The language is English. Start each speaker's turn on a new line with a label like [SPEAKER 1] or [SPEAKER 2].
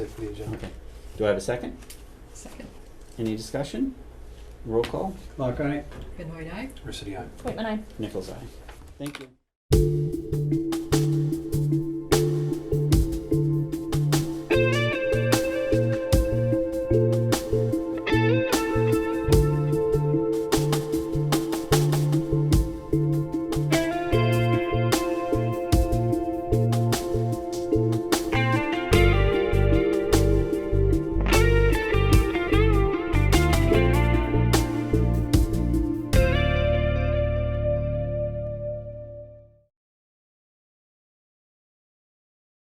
[SPEAKER 1] it for the agenda.
[SPEAKER 2] Okay. Do I have a second?
[SPEAKER 3] Second,
[SPEAKER 2] Any discussion? Roll call.
[SPEAKER 4] Clark, aye.
[SPEAKER 3] Benoit, aye.
[SPEAKER 1] Residency.
[SPEAKER 5] Wait, and I
[SPEAKER 2] Nichols, eye. Thank you.